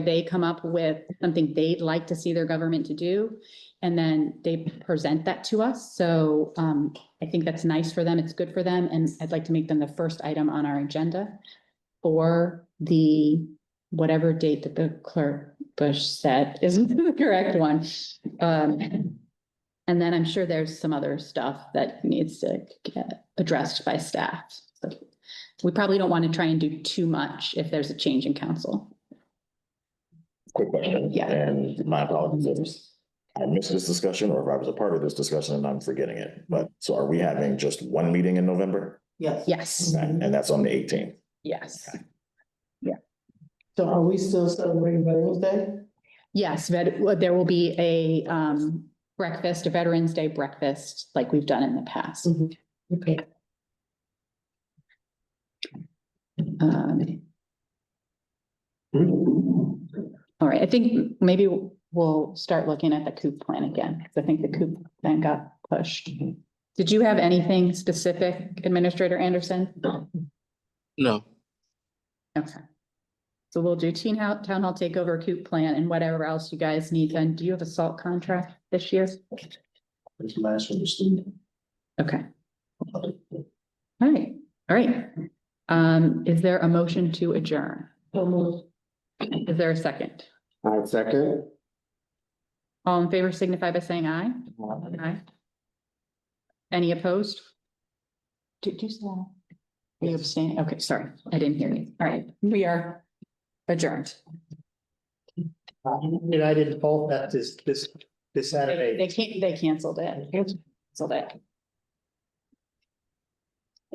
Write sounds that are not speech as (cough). They come up with something they'd like to see their government to do, and then they present that to us. So um, I think that's nice for them. It's good for them, and I'd like to make them the first item on our agenda for the whatever date that the clerk Bush said is (laughs) the correct one. Um, and then I'm sure there's some other stuff that needs to get addressed by staff. So We probably don't want to try and do too much if there's a change in council. Quick question. Yeah. And my apologies if I missed this discussion or if I was a part of this discussion and I'm forgetting it. But so are we having just one meeting in November? Yes. Yes, And and that's on the eighteenth. yes, So are we still celebrating Veterans Day? yes, vet- well, there will be a um breakfast, a Veterans Day breakfast, like we've done in the past. Okay. Um, All right, I think maybe we'll start looking at the coop plan again, because I think the coop plan got pushed. Did you have anything specific, Administrator Anderson? No, Okay. So we'll do teen hou- town hall takeover, coop plan, and whatever else you guys need done. Do you have a salt contract this year? This last one is the. Okay, all right, all right. Um, is there a motion to adjourn? Is there a second? I second. All in favor signify by saying aye. Aye. Any opposed? Did you say? aye? You abstain? Okay, sorry, I didn't hear you. All right, we are adjourned. Uh, United Bowl Baptist this, this Saturday. They can't, they canceled it. Canceled it.